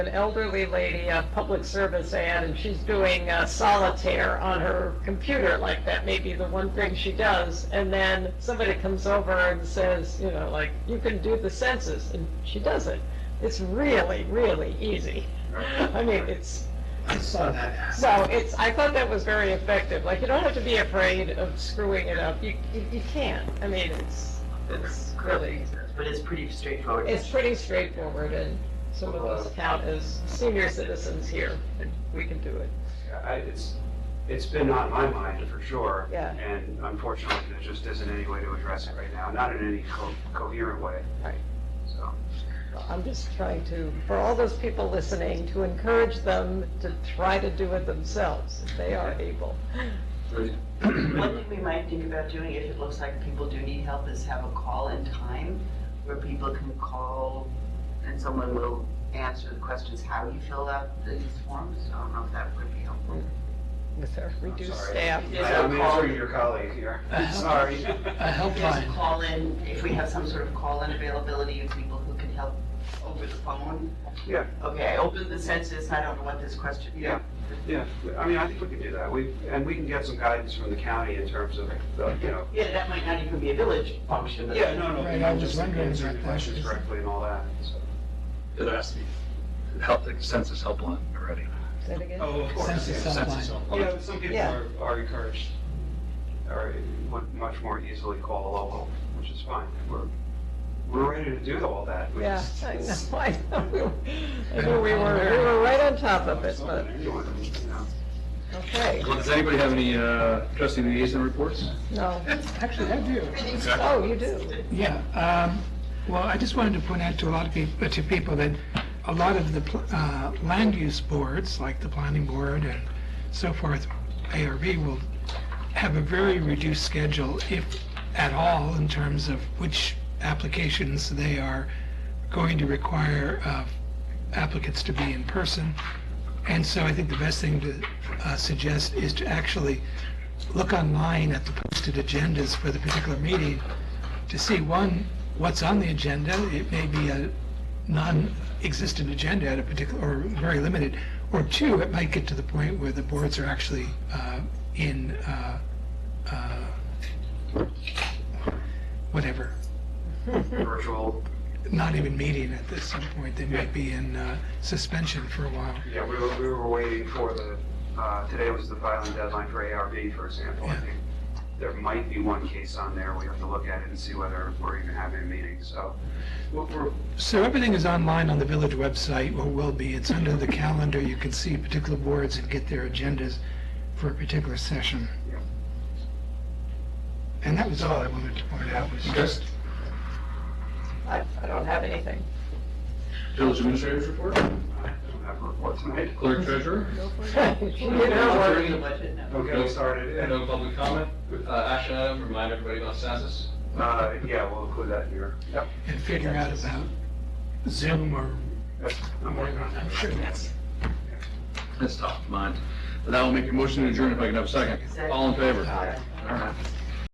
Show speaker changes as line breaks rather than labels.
an elderly lady, a public service ad, and she's doing uh, solitaire on her computer, like that may be the one thing she does. And then somebody comes over and says, you know, like, you can do the census, and she does it. It's really, really easy. I mean, it's,
I saw that.
so it's, I thought that was very effective. Like, you don't have to be afraid of screwing it up. You, you, you can. I mean, it's, it's really,
But it's pretty straightforward.
it's pretty straightforward and some of us count as senior citizens here and we can do it.
I, it's, it's been on my mind for sure.
Yeah.
And unfortunately, there just isn't any way to address it right now, not in any co- coherent way.
Right.
So,
I'm just trying to, for all those people listening, to encourage them to try to do it themselves if they are able.
One thing we might think about doing, if it looks like people do need help, is have a call-in time where people can call and someone will answer the questions, how you filled out these forms. I don't know if that would be helpful.
With our reduced
sorry.
staff.
There's
I
a
am
call-
answering your colleague here,
I have-
sorry.
A
There's
helpline,
call-in, if we have some sort of call-in availability of people who can help over the phone.
Yeah.
Okay, I opened the census, I don't know what this question is.
Yeah, yeah, I mean, I think we can do that, we, and we can get some guidance from the county in terms of, the, you know.
Yeah, that might not even be a village function, but.
Yeah, no, no,
Right,
you
I
know,
was
just
wondering
answering the
about that.
questions correctly and all that, so.
It has to be help, the census helpline already.
Say it again?
Oh, of
course, Census yeah, census
Yeah, but some people
Yeah.
are, are encouraged, or would much more easily call a local, which is fine. We're, we're ready to do all that. We
Yeah,
just- uh,
I know, I know, we were- I know we were, we were right on top of it, but,
Anyone, you know.
okay,
Well, does anybody have any uh, trustee liaison reports?
no.
actually, I do.
Oh, you do?
Yeah, um, well, I just wanted to point out to a lot of people, to people that a lot of the, pl- uh, land use boards, like the planning board and so forth, ARB will have a very reduced schedule, if at all, in terms of which applications they are going to require uh, applicants to be in person. And so I think the best thing to uh, suggest is to actually look online at the posted agendas for the particular meeting to see, one, what's on the agenda. It may be a non-existent agenda at a particular, or very limited. Or two, it might get to the point where the boards are actually uh, in, uh, uh, whatever,
Virtual,
not even meeting at this some point. They might be in uh, suspension for a while.
yeah, we were, we were waiting for the, uh, today was the filing deadline for ARB, for example. I
Yeah.
think There might be one case on there. We have to look at it and see whether we're even having a meeting, so. We're, we're-
So everything is online on the village website, or will be. It's under the calendar. You can see particular boards and get their agendas for a particular session.
Yeah.
And that was all I wanted to point out, was just,
I, I don't have anything.
Village administrator's report,
I don't have a report tonight.
clerk treasurer,
You know,
Or the budget, no.
Don't get me started.
And no public comment. Uh, action item, remind everybody about census.
Uh, yeah, we'll include that here. Yep.
and figure out about Zoom or,
I'm working on
I'm sure that's,
that's top of mind. That will make a motion to adjourn if I can have a second. All in favor? All right.